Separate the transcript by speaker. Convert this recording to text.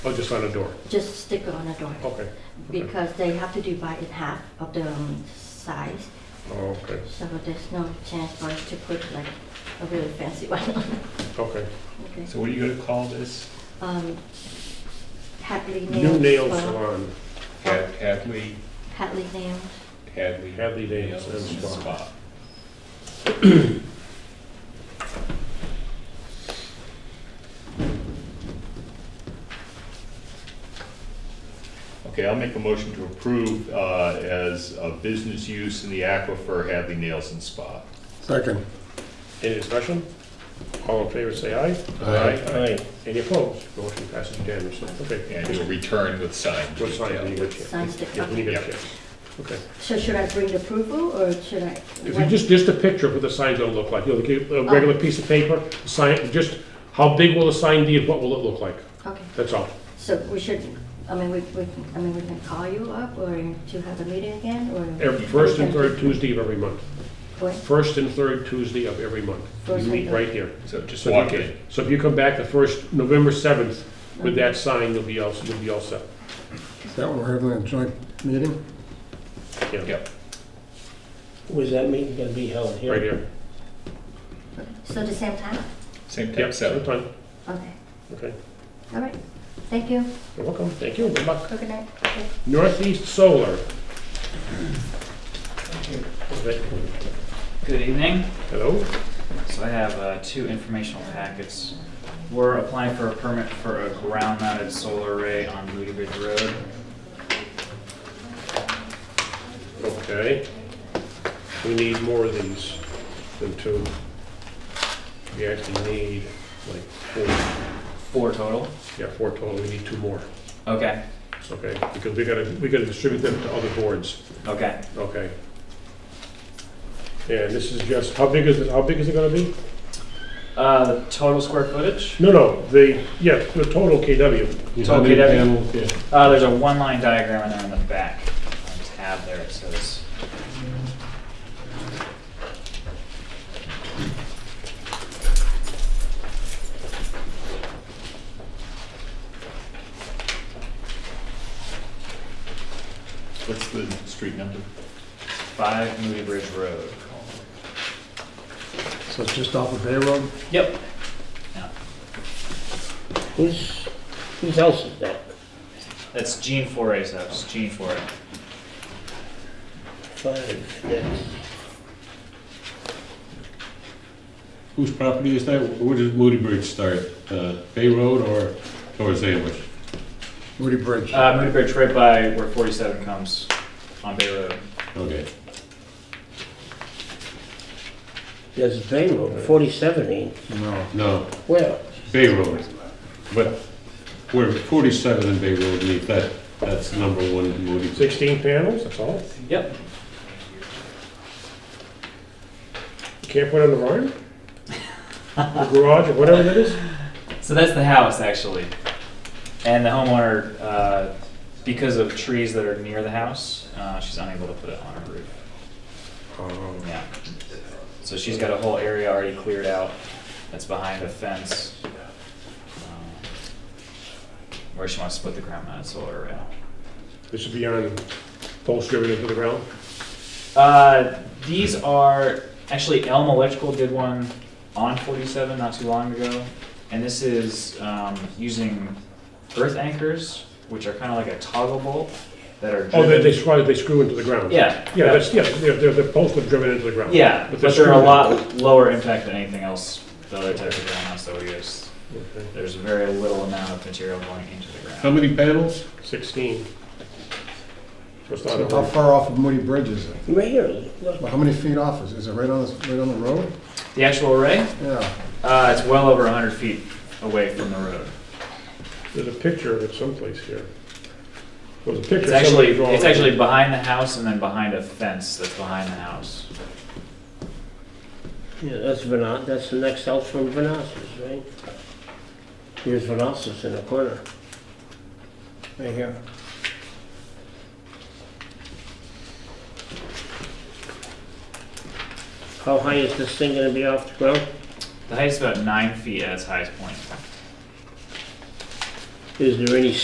Speaker 1: Oh, just on a door,
Speaker 2: just stick on a door.
Speaker 1: Oh, okay,
Speaker 2: Because they have to divide it half of the um, size,
Speaker 1: oh, okay,
Speaker 2: so there's no chance for us to put like a really fancy one on.
Speaker 1: okay.
Speaker 2: Okay.
Speaker 3: So what are you gonna call this?
Speaker 2: Um, Hadley nails.
Speaker 1: New nail
Speaker 2: well,
Speaker 1: salon,
Speaker 3: Had- Hadley,
Speaker 2: Hadley nails.
Speaker 3: Hadley.
Speaker 1: Hadley Nails and Spa.
Speaker 3: Okay, I'll make a motion to approve uh, as a business use in the aquifer Hadley Nails and Spa.
Speaker 4: Second.
Speaker 1: any discussion? All in favor, say aye.
Speaker 3: Aye.
Speaker 1: Aye. Any opposed? Motion passes unanimously,
Speaker 3: And
Speaker 1: okay.
Speaker 3: do a return with sign.
Speaker 1: We'll sign when you get here.
Speaker 2: Signs that-
Speaker 1: Yeah, when you get
Speaker 3: okay.
Speaker 1: here, okay.
Speaker 2: So should I bring the approval or should I?
Speaker 1: If you just, just a picture of what the sign's gonna look like, you know, like a a
Speaker 2: Oh.
Speaker 1: regular piece of paper, sign, just, how big will the sign be and what will it look like?
Speaker 2: Okay,
Speaker 1: That's all.
Speaker 2: so we should, I mean, we, we, can- I mean, we can call you up or to have a meeting again or?
Speaker 1: Every, first and third Tuesday of every month.
Speaker 2: What?
Speaker 1: First and third Tuesday of every month.
Speaker 2: First
Speaker 1: We meet
Speaker 2: and third.
Speaker 1: right here.
Speaker 3: So just
Speaker 1: So if
Speaker 3: walk
Speaker 1: you-
Speaker 3: in.
Speaker 1: So if you come back the first, November seventh, with that sign, you'll be all, you'll be all set.
Speaker 4: Is that when we're having a joint meeting?
Speaker 1: Yeah,
Speaker 3: Yep.
Speaker 5: Was that meeting gonna be held here?
Speaker 1: right here.
Speaker 2: So the same time?
Speaker 3: Same
Speaker 1: Yeah,
Speaker 3: time, seven.
Speaker 1: sometime.
Speaker 2: Okay,
Speaker 1: Okay,
Speaker 2: all right. Thank you.
Speaker 1: you're welcome, thank you, good luck.
Speaker 2: Have a Good night. Okay.
Speaker 1: Northeast Solar.
Speaker 6: Good evening.
Speaker 1: Hello?
Speaker 6: So I have uh, two informational packets. We're applying for a permit for a ground-mounted solar array on Moody Bridge Road.
Speaker 1: Okay. We need more of these than two. We actually need like four,
Speaker 6: Four total.
Speaker 1: yeah, four total, we need two more,
Speaker 6: Okay,
Speaker 1: okay? Because we gotta, we gotta distribute them to other boards,
Speaker 6: okay.
Speaker 1: okay? And this is just, how big is it, how big is it gonna be?
Speaker 6: Uh, the total square footage?
Speaker 1: No, no, the, yeah, the total KW.
Speaker 6: It's okay, Debbie.
Speaker 4: yeah.
Speaker 6: Uh, there's a one-line diagram in there on the back on the tab there. It says.
Speaker 3: What's the street number?
Speaker 6: Five Moody Bridge Road.
Speaker 4: So it's just off of Bay Road?
Speaker 6: Yep. Yeah.
Speaker 5: Who's, whose house is that?
Speaker 6: That's Gene Foray's house. Gene Foray.
Speaker 5: Five, that's,
Speaker 7: Whose property is that? Where does Moody Bridge start? Uh, Bay Road or towards Ambush?
Speaker 4: Moody Bridge.
Speaker 6: Uh, Moody Bridge, right by where 47 comes on Bay Road.
Speaker 7: Okay.
Speaker 5: there's a Bay Road, forty-seven ain't,
Speaker 4: No.
Speaker 7: No,
Speaker 5: well,
Speaker 7: Bay Road. But we're 47 in Bay Road meet. That, that's number one in Moody Bridge.
Speaker 1: Sixteen panels, that's all?
Speaker 6: Yep.
Speaker 1: You Can't put it on the barn? The garage or whatever that is?
Speaker 6: So that's the house, actually. And the homeowner, uh, because of trees that are near the house, uh, she's unable to put it on her roof. Yeah. So she's got a whole area already cleared out that's behind a fence um, where she wants to put the ground mounted solar array.
Speaker 1: This would be on post riveted to the ground?
Speaker 6: Uh, these are actually Elm Electrical did one on 47 not too long ago, and this is um, using earth anchors, which are kind of like a toggle bolt that are
Speaker 1: Oh, they,
Speaker 6: driven-
Speaker 1: they screw, they screw into the ground?
Speaker 6: yeah
Speaker 1: Yeah, that's, yeah, they're, they're, the posts are driven into the ground.
Speaker 6: yeah,
Speaker 1: But
Speaker 6: but,
Speaker 1: they're
Speaker 6: they're a
Speaker 1: screwed.
Speaker 6: lot lower impact than anything else the other types of ground mounts that we use.
Speaker 1: Okay.
Speaker 6: There's very little amount of material going into the ground.
Speaker 7: How many panels?
Speaker 1: Sixteen. So it's not
Speaker 4: So
Speaker 1: a-
Speaker 4: how far off of Moody Bridge is it?
Speaker 5: right here, look,
Speaker 4: Well, How many feet off is it? Is it right on, the- right on the road?
Speaker 6: The actual array,
Speaker 4: Yeah.
Speaker 6: uh, it's well over 100 feet away from the road.
Speaker 1: There's a picture of it someplace here. There's a picture.
Speaker 6: It's actually,
Speaker 1: somebody drawn.
Speaker 6: it's actually behind the house and then behind a fence that's behind the house.
Speaker 5: yeah, that's Venas, that's the next house from Vanassus, right? Here's Vanassus in the corner. Right here. How high is this thing gonna be off the ground?
Speaker 6: The height's about nine feet at its highest point.
Speaker 5: Is there any